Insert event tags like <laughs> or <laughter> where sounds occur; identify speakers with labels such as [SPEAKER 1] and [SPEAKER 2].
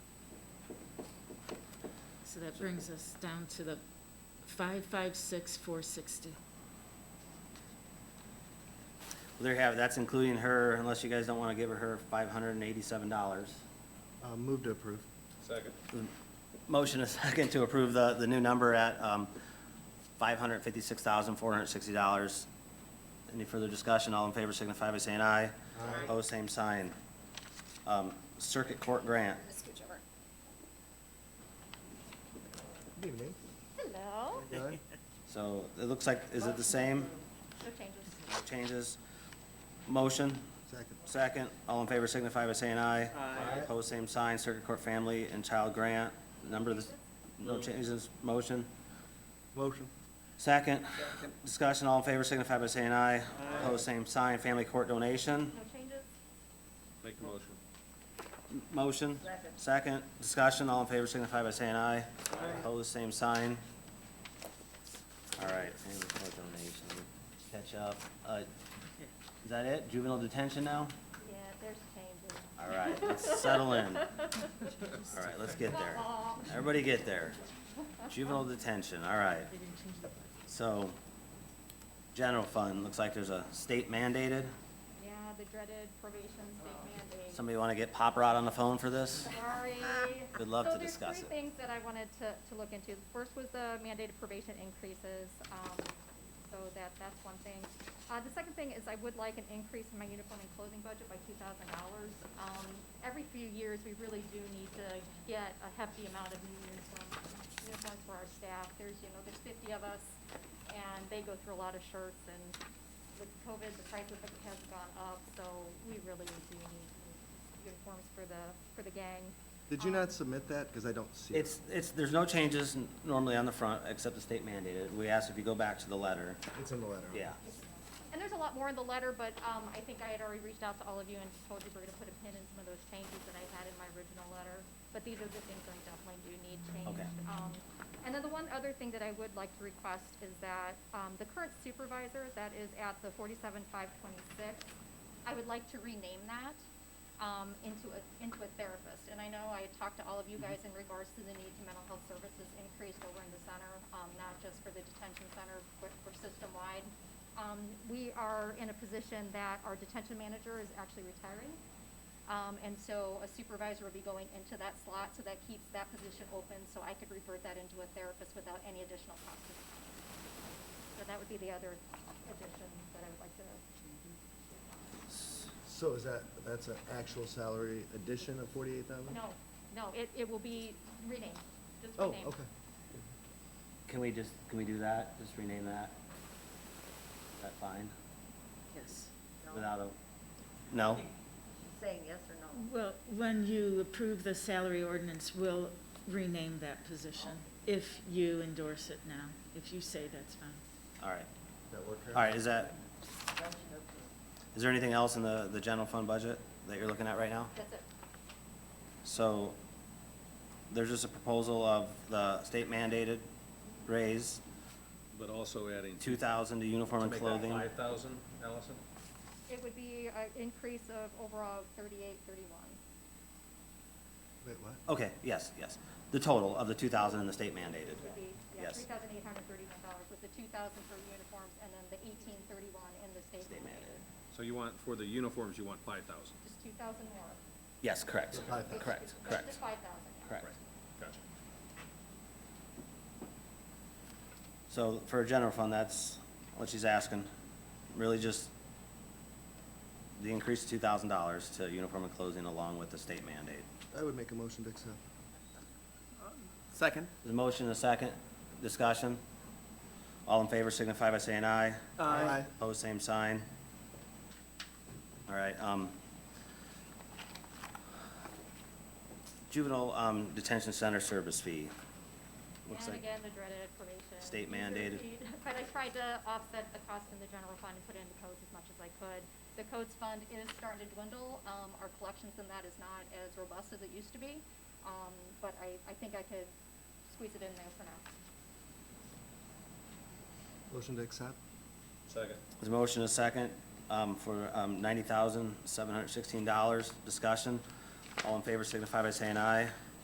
[SPEAKER 1] that brings us down to the five, five, six, four, sixty.
[SPEAKER 2] Well, There you have it, that's including her, unless you guys don't want to give her her five hundred and eighty-seven dollars.
[SPEAKER 3] Uh, Move to approve.
[SPEAKER 4] Second.
[SPEAKER 2] Motion is <laughs> second to approve the, the new number at, um, five hundred fifty-six thousand, four hundred sixty dollars. Any further discussion? All in favor signify by saying aye.
[SPEAKER 1] Aye.
[SPEAKER 2] Opposed, same sign. Um, Circuit Court Grant.
[SPEAKER 5] Let's scooch over.
[SPEAKER 3] Good evening.
[SPEAKER 5] Hello.
[SPEAKER 3] How you doing?
[SPEAKER 2] So it looks like, is it the same?
[SPEAKER 5] No changes.
[SPEAKER 2] No changes? Motion,
[SPEAKER 3] Second.
[SPEAKER 2] second. All in favor signify by saying aye.
[SPEAKER 3] Aye.
[SPEAKER 2] Opposed, same sign. Circuit Court Family and Child Grant. Number of the, no changes, motion.
[SPEAKER 3] Motion.
[SPEAKER 2] Second, discussion, all in favor signify by saying aye. Opposed, same sign, family court donation,
[SPEAKER 5] No changes.
[SPEAKER 4] Make the motion.
[SPEAKER 2] motion.
[SPEAKER 5] Second.
[SPEAKER 2] Second, discussion, all in favor signify by saying aye. Opposed, same sign. All right, family court donation, catch up. Uh, Is that it? Juvenile detention now?
[SPEAKER 5] Yeah, there's changes.
[SPEAKER 2] All right, let's settle in. All right, let's get there. Everybody get there. Juvenile detention, all right.
[SPEAKER 1] They didn't change the budget.
[SPEAKER 2] So, general fund, looks like there's a state mandated.
[SPEAKER 5] Yeah, the dreaded probation state mandate.
[SPEAKER 2] Somebody want to get Pop Rod on the phone for this?
[SPEAKER 5] Sorry.
[SPEAKER 2] We'd love
[SPEAKER 5] So
[SPEAKER 2] to discuss
[SPEAKER 5] there's
[SPEAKER 2] it.
[SPEAKER 5] three things that I wanted to, to look into. The first was the mandated probation increases, um, so that, that's one thing. Uh, the second thing is I would like an increase in my uniform and clothing budget by two thousand dollars. Um, every few years, we really do need to get a hefty amount of new uniforms, uniforms for our staff. There's, you know, there's fifty of us, and they go through a lot of shirts, and with COVID, the price of it has gone up, so we really do need uniforms for the, for the gang.
[SPEAKER 3] Did you
[SPEAKER 5] Um,
[SPEAKER 3] not submit that? Because I don't see it.
[SPEAKER 2] It's, it's, there's no changes n- normally on the front, except the state mandated. We asked if you go back to the letter.
[SPEAKER 3] It's in the letter.
[SPEAKER 2] Yeah.
[SPEAKER 5] And there's a lot more in the letter, but um, I think I had already reached out to all of you and told you we're gonna put a pin in some of those changes that I had in my original letter. But these are the things that I definitely do need changed.
[SPEAKER 2] Okay.
[SPEAKER 5] Um, And then the one other thing that I would like to request is that um, the current supervisor that is at the forty-seven five twenty-six, I would like to rename that um, into a, into a therapist. And I know I had talked to all of you guys in regards to the need to mental health services increased over in the center, um, not just for the detention center, but for system-wide. Um, we are in a position that our detention manager is actually retiring. Um, and so a supervisor will be going into that slot, so that keeps that position open, so I could revert that into a therapist without any additional cost. to the county. So that would be the other addition that I would like to,
[SPEAKER 3] Mm-hmm. So is that, that's an actual salary addition of forty-eight thousand?
[SPEAKER 5] no, no, it, it will be renamed, just
[SPEAKER 3] Oh,
[SPEAKER 5] renamed.
[SPEAKER 3] okay.
[SPEAKER 2] Can we just, can we do that? Just rename that? Is that fine?
[SPEAKER 1] Yes.
[SPEAKER 2] Without a, no?
[SPEAKER 6] saying yes or no.
[SPEAKER 1] Well, when you approve the salary ordinance, we'll rename that position if you endorse it now. If you say that's fine.
[SPEAKER 2] All right.
[SPEAKER 3] Does that work? Karen?
[SPEAKER 2] All right, is that,
[SPEAKER 6] Motion approved.
[SPEAKER 2] is there anything else in the, the general fund budget that you're looking at right now?
[SPEAKER 5] That's it.
[SPEAKER 2] So there's just a proposal of the state mandated raise,
[SPEAKER 4] But also adding.
[SPEAKER 2] two thousand to uniform and clothing.
[SPEAKER 4] Five thousand, Allison?
[SPEAKER 5] It would be an increase of overall thirty-eight, thirty-one.
[SPEAKER 3] Wait, what?
[SPEAKER 2] Okay, yes, yes. The total of the two thousand and the state mandated.
[SPEAKER 5] Would be, yeah,
[SPEAKER 2] Yes.
[SPEAKER 5] three thousand eight hundred thirty-one dollars with the two thousand for uniforms and then the eighteen thirty-one in the state
[SPEAKER 2] State mandated.
[SPEAKER 5] mandated.
[SPEAKER 4] So you want, for the uniforms, you want five thousand?
[SPEAKER 5] Just two thousand more.
[SPEAKER 2] Yes, correct.
[SPEAKER 3] The five thousand.
[SPEAKER 2] Correct, correct,
[SPEAKER 5] Just five thousand.
[SPEAKER 2] correct.
[SPEAKER 4] Gotcha.
[SPEAKER 2] So for a general fund, that's what she's asking. Really just the increase of two thousand dollars to uniform and clothing along with the state mandate.
[SPEAKER 3] I would make a motion to accept.
[SPEAKER 7] Second.
[SPEAKER 2] There's a motion and a second. Discussion? All in favor signify by saying aye.
[SPEAKER 3] Aye.
[SPEAKER 2] Opposed, same sign. All right, um, juvenile, um, detention center service fee. Looks
[SPEAKER 5] And
[SPEAKER 2] like,
[SPEAKER 5] again, the dreaded probation.
[SPEAKER 2] State
[SPEAKER 5] user
[SPEAKER 2] mandated.
[SPEAKER 5] fee. But <laughs> I tried to offset the cost in the general fund and put it into codes as much as I could. The codes fund is starting to dwindle, um, our collections in that is not as robust as it used to be. Um, but I, I think I could squeeze it in there for now.
[SPEAKER 3] Motion to accept?
[SPEAKER 4] Second.
[SPEAKER 2] there's a motion, and a second, um, for, um, ninety thousand, seven hundred sixteen dollars. Discussion? All in favor signify by saying aye.